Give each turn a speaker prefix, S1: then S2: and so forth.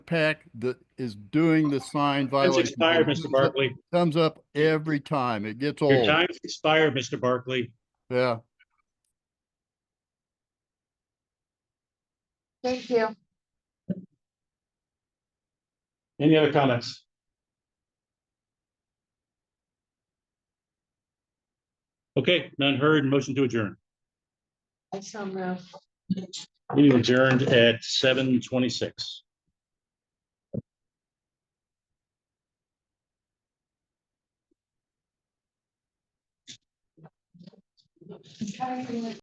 S1: pack that is doing the sign
S2: It's
S1: violation.
S2: expired, Mr. Barkley.
S1: Comes up every time. It gets
S2: Your
S1: old.
S2: time's expired, Mr. Barkley.
S1: Yeah.
S3: Thank you.
S2: Any other comments? Okay, none heard, motion to adjourn.
S3: I shall move.
S2: Meeting adjourned at seven twenty-six.
S3: I'm trying to-